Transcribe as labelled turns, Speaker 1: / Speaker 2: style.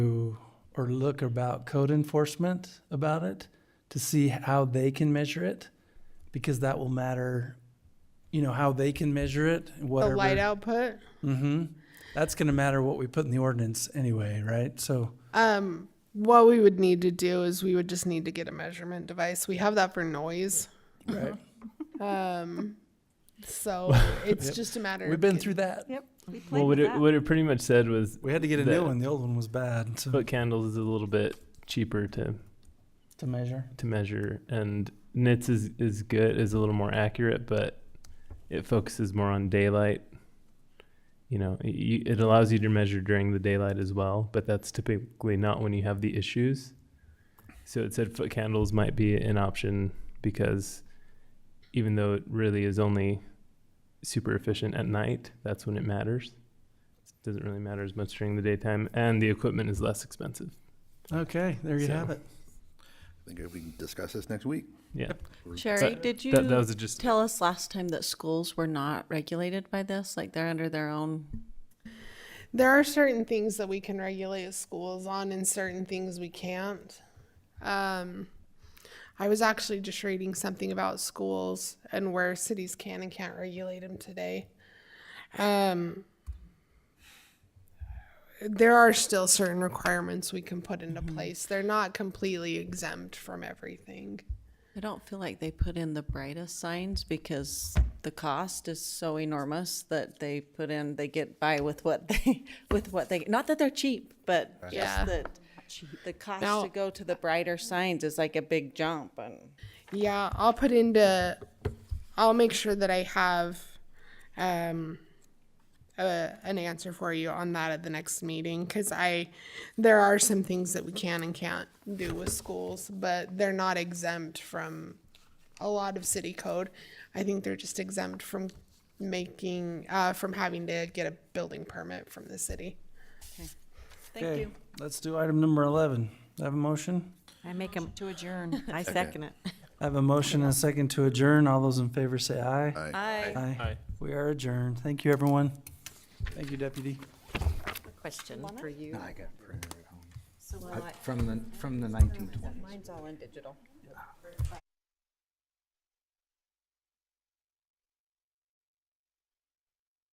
Speaker 1: or look about code enforcement about it to see how they can measure it, because that will matter, you know, how they can measure it,
Speaker 2: The
Speaker 1: whatever.
Speaker 2: light output.
Speaker 1: Mm-hmm. That's gonna matter what we put in the ordinance anyway, right? So,
Speaker 2: Um, what we would need to do is we would just need to get a measurement device. We have that for noise.
Speaker 3: Mm-hmm.
Speaker 1: right,
Speaker 2: Um, so it's just a matter.
Speaker 1: we've
Speaker 2: of
Speaker 1: been
Speaker 2: get-
Speaker 1: through that.
Speaker 4: Yep. We played
Speaker 5: Well, what
Speaker 4: with
Speaker 5: it
Speaker 4: that.
Speaker 5: what it pretty much said was
Speaker 1: We had to get a
Speaker 5: That-
Speaker 1: new one. The old one was bad to,
Speaker 5: foot candles is a little bit cheaper to
Speaker 1: to measure.
Speaker 5: to measure, and nits is is good is a little more accurate, but it focuses more on daylight. You know, y- y- it allows you to measure during the daylight as well, but that's typically not when you have the issues. So it said foot candles might be an option because even though it really is only super efficient at night, that's when it matters. It doesn't really matter as much during the daytime, and the equipment is less expensive.
Speaker 1: Okay, there you
Speaker 5: So-
Speaker 1: have it.
Speaker 6: I think we can discuss this next week.
Speaker 5: Yeah.
Speaker 3: Sherry,
Speaker 5: That-
Speaker 3: did you
Speaker 5: That, that was just
Speaker 3: tell us last time that schools were not regulated by this? Like they're under their own.
Speaker 2: There are certain things that we can regulate schools on, and certain things we can't. Um, I was actually just reading something about schools and where cities can and can't regulate them today. Um, there are still certain requirements we can put into place. They're not completely exempt from everything.
Speaker 3: I don't feel like they put in the brightest signs because the cost is so enormous that they put in. They get by with what they with what they. Not that they're cheap, but
Speaker 2: Yeah.
Speaker 3: just that the cost
Speaker 2: Now-
Speaker 3: to go to the brighter signs is like a big jump. And
Speaker 2: Yeah, I'll put into. I'll make sure that I have um, a, an answer for you on that at the next meeting because I, there are some things that we can and can't do with schools, but they're not exempt from a lot of city code. I think they're just exempt from making uh, from having to get a building permit from the city.
Speaker 3: thank
Speaker 1: okay,
Speaker 3: you.
Speaker 1: let's do item number 11. I have a motion.
Speaker 4: I make them to adjourn. I second it.
Speaker 1: I have a motion and a second to adjourn. All those in favor say aye.
Speaker 6: Aye.
Speaker 3: I
Speaker 5: Aye.
Speaker 1: We are adjourned. Thank you, everyone. Thank you, Deputy.
Speaker 4: Question for you.
Speaker 7: I got printer at home.
Speaker 4: So will
Speaker 7: From the, from the nineteen twenties.
Speaker 4: Mine's all in digital.